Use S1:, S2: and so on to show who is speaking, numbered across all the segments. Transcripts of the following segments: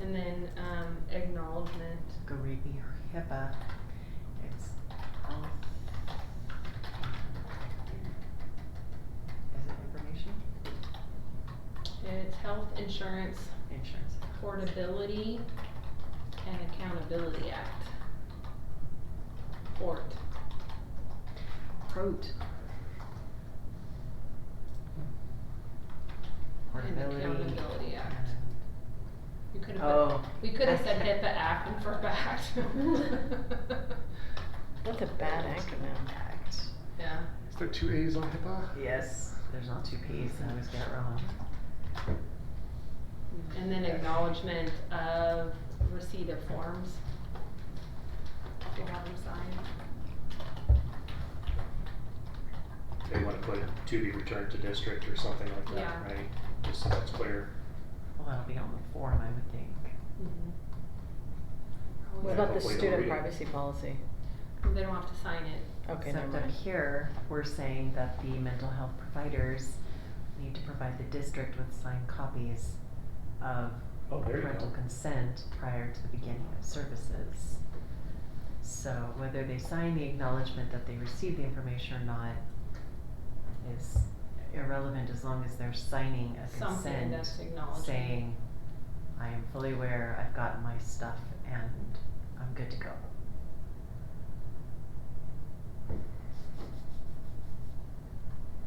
S1: and then, um, acknowledgement.
S2: Go read me your HIPAA. It's health. Is it information?
S1: It's health insurance,
S2: Insurance.
S1: portability, and accountability act. Port.
S2: Prot.
S1: And
S2: Portability.
S1: accountability act. You could've put,
S2: Oh,
S1: we could've said
S2: Okay.
S1: HIPAA act and FERPA act.
S3: That's a bad acronym.
S2: act.
S1: Yeah.
S4: Is there two A's on HIPAA?
S2: Yes, there's not two P's, I always get it wrong.
S1: And then acknowledgement of receipt of forms. We'll have them sign.
S4: They wanna put to be returned to district or something like that,
S1: Yeah.
S4: right? Just so that's clear.
S2: Well, that'll be on the form, I would think.
S1: Mm-hmm.
S3: What
S4: Yeah,
S3: about the
S4: hopefully they'll
S3: student
S4: read it.
S3: privacy policy?
S1: They don't have to sign it.
S3: Okay, never
S2: Except up
S3: mind.
S2: here, we're saying that the mental health providers need to provide the district with signed copies of
S4: Oh, there you
S2: parental
S4: go.
S2: consent prior to the beginning of services. So whether they sign the acknowledgement that they received the information or not is irrelevant as long as they're signing a
S1: Something
S2: consent
S1: that's acknowledgement.
S2: saying, I am fully aware, I've gotten my stuff and I'm good to go.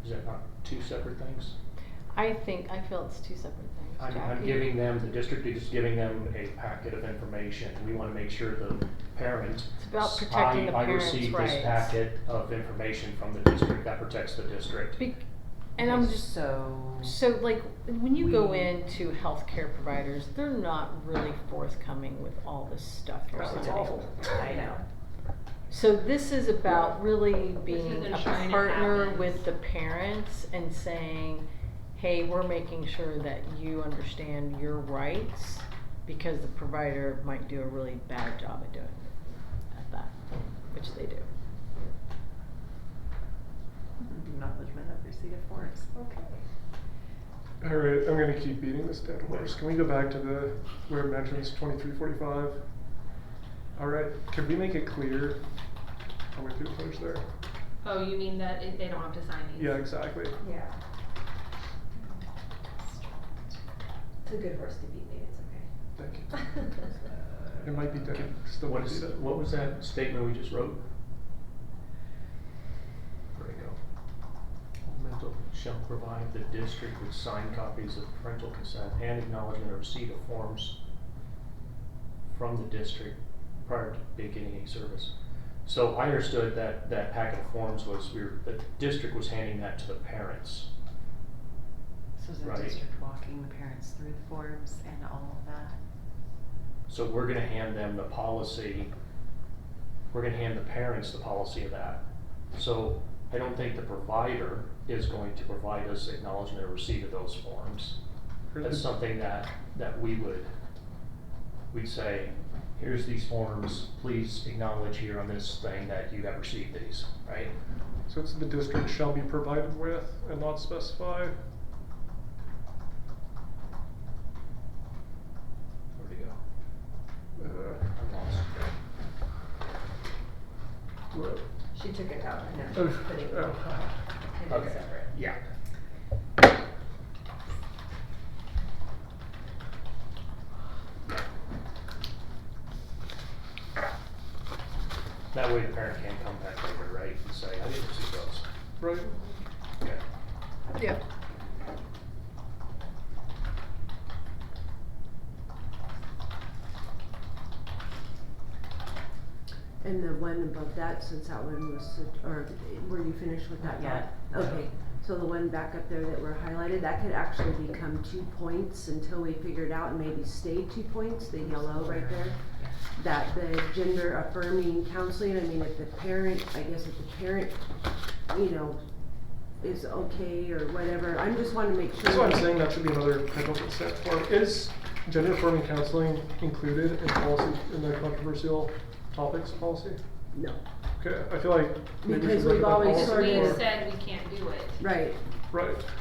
S4: Is that not two separate things?
S3: I think, I feel it's two separate things.
S4: I'm, I'm
S3: Jackie.
S4: giving them, the district is giving them a packet of information. We wanna make sure the parent.
S3: It's about
S4: s-
S3: protecting
S4: I-
S3: the parents' rights.
S4: I received this packet of information from the district, that protects the district.
S3: Bec- And I'm
S2: Okay,
S3: just,
S2: So.
S3: so like, when you go
S2: We-
S3: into healthcare providers, they're not really forthcoming with all this stuff you're
S4: Oh,
S3: signing.
S4: it's awful.
S2: I know.
S3: So this is about really
S1: is
S3: being
S1: them
S3: a
S1: trying to
S3: partner
S1: happen.
S3: with the parents and saying, hey, we're making sure that you understand your rights because the provider might do a really bad job at doing at that, which they do.
S2: Acknowledgement of receipt of forms, okay.
S5: All right, I'm gonna keep beating this dead horse. Can we go back to the where it mentions 2345? All right, could we make it clear? I'll wait through the finish there.
S1: Oh, you mean that it, they don't have to sign these?
S5: Yeah, exactly.
S6: Yeah. It's a good horse to beat, maybe it's
S5: Thank you.
S6: okay.
S5: It might be dead. Still
S4: What
S5: might be
S4: is,
S5: dead.
S4: what was that statement we just wrote? There we go. Mental shall provide the district with signed copies of parental consent and acknowledgement of receipt of forms from the district prior to beginning a service. So I understood that, that packet of forms was, we were, the district was handing that to the parents.
S2: So is the
S4: Right.
S2: district walking the parents through the forms and all of that?
S4: So we're gonna hand them the policy, we're gonna hand the parents the policy of that. So I don't think the provider is going to provide us acknowledgement or receipt of those forms.
S5: Or
S4: That's
S5: the-
S4: something that, that we would, we'd say, here's these forms, please acknowledge here on this thing that you have received these, right?
S5: So it's the district shall be provided with and not specify.
S4: Where'd it go?
S5: Uh,
S4: I'm lost.
S5: what-
S6: She took it out, and now she's putting it in
S5: oh,
S4: Okay.
S6: separate.
S4: Yeah. That way the parent can come back later, right, and say, I didn't see those.
S5: Right.
S4: Okay.
S3: Yeah.
S7: And the one above that, since that one was, such- or were you finished with that?
S2: Not yet.
S7: thought? Okay, so the one back up there that were highlighted, that could actually become two points until we figure it out and maybe stay two points, the yellow right there. That the gender affirming counseling, I mean, if the parent, I guess if the parent, you know, is okay or whatever, I just wanna make sure.
S5: That's why I'm
S7: that-
S5: saying that should be another parental consent form. Is gender affirming counseling included in policy, in the controversial topics policy?
S7: No,
S5: Okay, I feel like maybe we
S7: Because
S5: should look
S7: we've
S5: at that
S7: always
S5: policy
S7: sort
S1: We
S7: of-
S5: more.
S1: said we can't do it.
S7: right.
S5: Right.